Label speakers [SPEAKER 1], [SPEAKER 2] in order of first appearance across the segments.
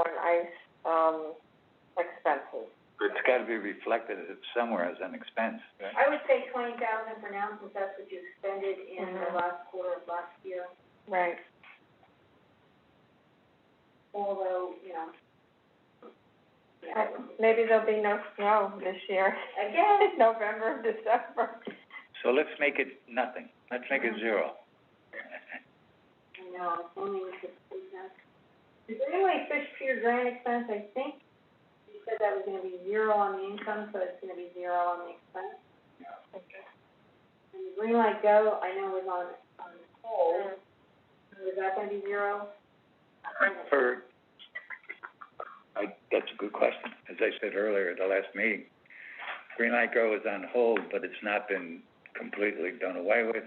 [SPEAKER 1] itemized, um, expenses.
[SPEAKER 2] It's gotta be reflected as- somewhere as an expense, right?
[SPEAKER 3] I would say twenty thousand for now, since that's what you expended in the
[SPEAKER 1] Mhm.
[SPEAKER 3] last quarter of last year,
[SPEAKER 1] Right.
[SPEAKER 3] although, you know. yeah.
[SPEAKER 1] Maybe there'll be no snow this year,
[SPEAKER 3] Again,
[SPEAKER 1] November, December.
[SPEAKER 2] So let's make it nothing, let's make it zero.
[SPEAKER 3] no, it's only with the food tax. Is there any way fish pier grant expense, I think, you said that was gonna be zero on the income, so it's gonna be zero on the expense. And the green light go, I know was on, on hold,
[SPEAKER 1] Mm-hmm.
[SPEAKER 3] is that gonna be zero?
[SPEAKER 2] For, I, that's a good question. As I said earlier at the last meeting, Green Light Grow is on hold, but it's not been completely done away with.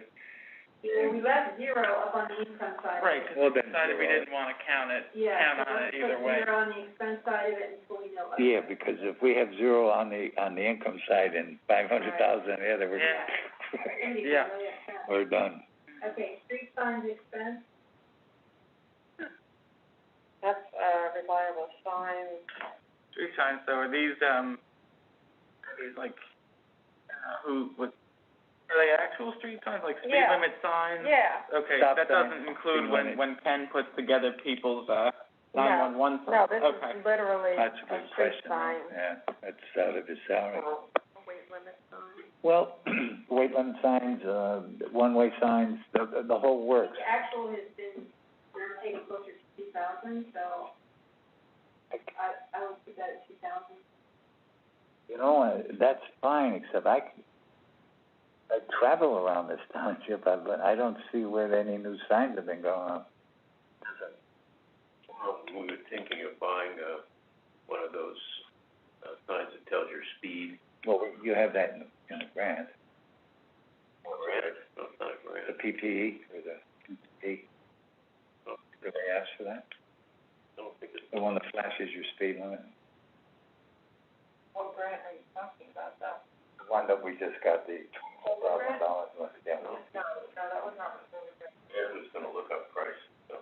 [SPEAKER 3] Yeah, we left zero up on the income side.
[SPEAKER 4] Right, 'cause
[SPEAKER 2] Well,
[SPEAKER 4] we
[SPEAKER 2] then
[SPEAKER 4] decided we
[SPEAKER 2] zero.
[SPEAKER 4] didn't wanna count it,
[SPEAKER 3] Yeah,
[SPEAKER 4] count
[SPEAKER 3] so
[SPEAKER 4] on
[SPEAKER 3] let's
[SPEAKER 4] it either
[SPEAKER 3] put
[SPEAKER 4] way.
[SPEAKER 3] zero on the expense side of it until we know what.
[SPEAKER 2] Yeah, because if we have zero on the, on the income side and five hundred thousand on the other, we're,
[SPEAKER 4] Yeah.
[SPEAKER 3] Maybe we
[SPEAKER 4] Yeah.
[SPEAKER 3] know that, yeah.
[SPEAKER 2] we're done.
[SPEAKER 3] Okay, street signs expense,
[SPEAKER 1] That's, uh, reliable signs.
[SPEAKER 4] Street signs, so are these, um, are these like, uh, who, what, are they actual street signs, like speed
[SPEAKER 1] Yeah.
[SPEAKER 4] limit signs?
[SPEAKER 1] Yeah,
[SPEAKER 4] Okay,
[SPEAKER 2] Stop
[SPEAKER 4] that
[SPEAKER 2] signs,
[SPEAKER 4] doesn't include
[SPEAKER 2] speed
[SPEAKER 4] when,
[SPEAKER 2] limit.
[SPEAKER 4] when Ken puts together people's, uh,
[SPEAKER 1] No.
[SPEAKER 4] nine-one-one
[SPEAKER 1] no,
[SPEAKER 4] signs,
[SPEAKER 1] this
[SPEAKER 4] okay.
[SPEAKER 1] is literally
[SPEAKER 2] That's a
[SPEAKER 1] a
[SPEAKER 2] good
[SPEAKER 1] street
[SPEAKER 2] question.
[SPEAKER 1] sign.
[SPEAKER 2] Yeah, that's out of his salary.
[SPEAKER 1] so, a weight limit sign.
[SPEAKER 2] Well, weight limit signs, uh, one-way signs, the, the- the whole works.
[SPEAKER 3] the actual has been, we're taking closer to two thousand, so I, I would put that at two thousand.
[SPEAKER 2] You know, uh, that's fine, except I, c- I travel around this township, I, but I don't see where any new signs have been going up.
[SPEAKER 5] We were thinking of buying, uh, one of those, uh, signs that tells your speed,
[SPEAKER 2] Well, you have that in, the- in the grant,
[SPEAKER 5] or granted, no, not
[SPEAKER 2] the
[SPEAKER 5] granted,
[SPEAKER 2] PPE or the PPE.
[SPEAKER 5] Oh.
[SPEAKER 2] Did they ask for that?
[SPEAKER 5] I don't think it's.
[SPEAKER 2] The one that flashes your speed limit?
[SPEAKER 1] What grant are you talking about, though?
[SPEAKER 2] The one that we just got the twelve thousand dollars one, yeah.
[SPEAKER 5] Oh.
[SPEAKER 1] No, no, that was not really good.
[SPEAKER 5] Aaron was gonna look up price, so.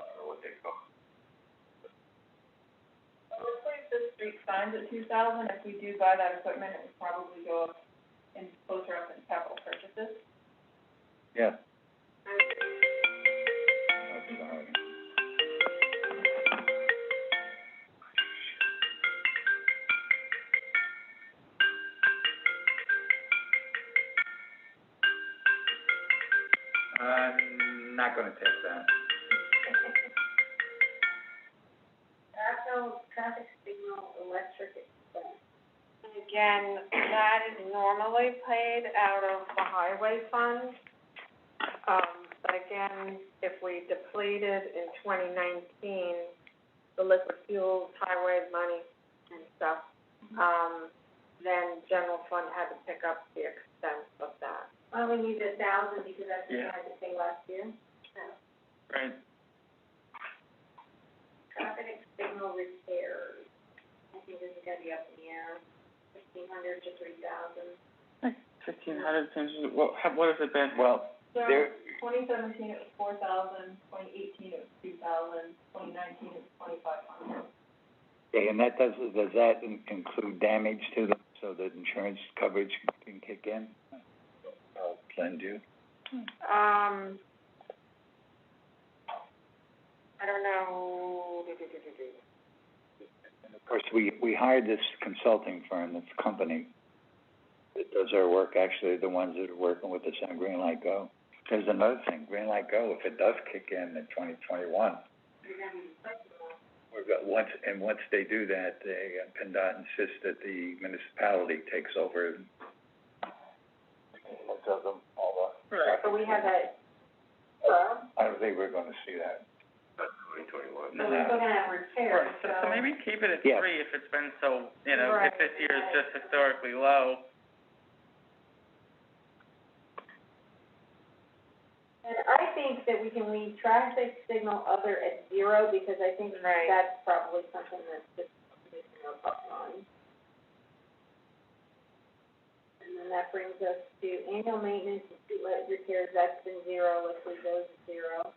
[SPEAKER 5] I don't know what they call
[SPEAKER 1] Let's leave the street signs at two thousand, if we do buy that equipment, it would probably go up in, closer up in capital purchases.
[SPEAKER 2] Yeah. Oh, sorry. I'm not gonna take that.
[SPEAKER 3] Actual traffic signal electric expense.
[SPEAKER 1] And again, that is normally paid out of the highway fund. Um, but again, if we depleted in twenty nineteen, the liquid fuels, highway money and stuff,
[SPEAKER 3] Mm-hmm.
[SPEAKER 1] um, then general fund had to pick up the expense of that.
[SPEAKER 3] Why don't we leave it a thousand, because that's what we
[SPEAKER 4] Yeah.
[SPEAKER 3] had to pay last year?
[SPEAKER 4] Right,
[SPEAKER 3] Traffic signal repairs, I think this is gonna be up in the air, fifteen hundred to three thousand.
[SPEAKER 4] fifteen hundred seems, what, ha- what has it been?
[SPEAKER 2] Well, there,
[SPEAKER 1] Twenty seventeen, it was four thousand, twenty eighteen, it was two thousand, twenty nineteen, it was twenty-five hundred.
[SPEAKER 2] okay, and that does, does that in- include damage to them, so that insurance coverage can kick in? I'll lend you.
[SPEAKER 1] Um, I don't know, do, do, do, do, do.
[SPEAKER 2] And of course, we, we hired this consulting firm, this company that does our work, actually, the ones that are working with us on Greenlight Go. There's another thing, Greenlight Go, if it does kick in in twenty twenty-one, we've got, once, and once they do that, they, uh, PennDOT insists that the municipality takes over. Does them, all
[SPEAKER 4] Right.
[SPEAKER 3] So we have that,
[SPEAKER 2] the, I don't think we're gonna see that.
[SPEAKER 5] twenty twenty-one.
[SPEAKER 3] so we're still gonna have repairs,
[SPEAKER 4] Right, so, so maybe keep it at
[SPEAKER 2] Yeah.
[SPEAKER 4] three if it's been so, you know,
[SPEAKER 1] Right,
[SPEAKER 4] if this year is
[SPEAKER 3] right.
[SPEAKER 4] just historically low.
[SPEAKER 3] And I think that we can leave traffic signal other at zero, because I think
[SPEAKER 1] Right.
[SPEAKER 3] that's probably something that's just, we can go up on. And then that brings us to annual maintenance, and streetlight repairs, that's been zero, if we go to zero.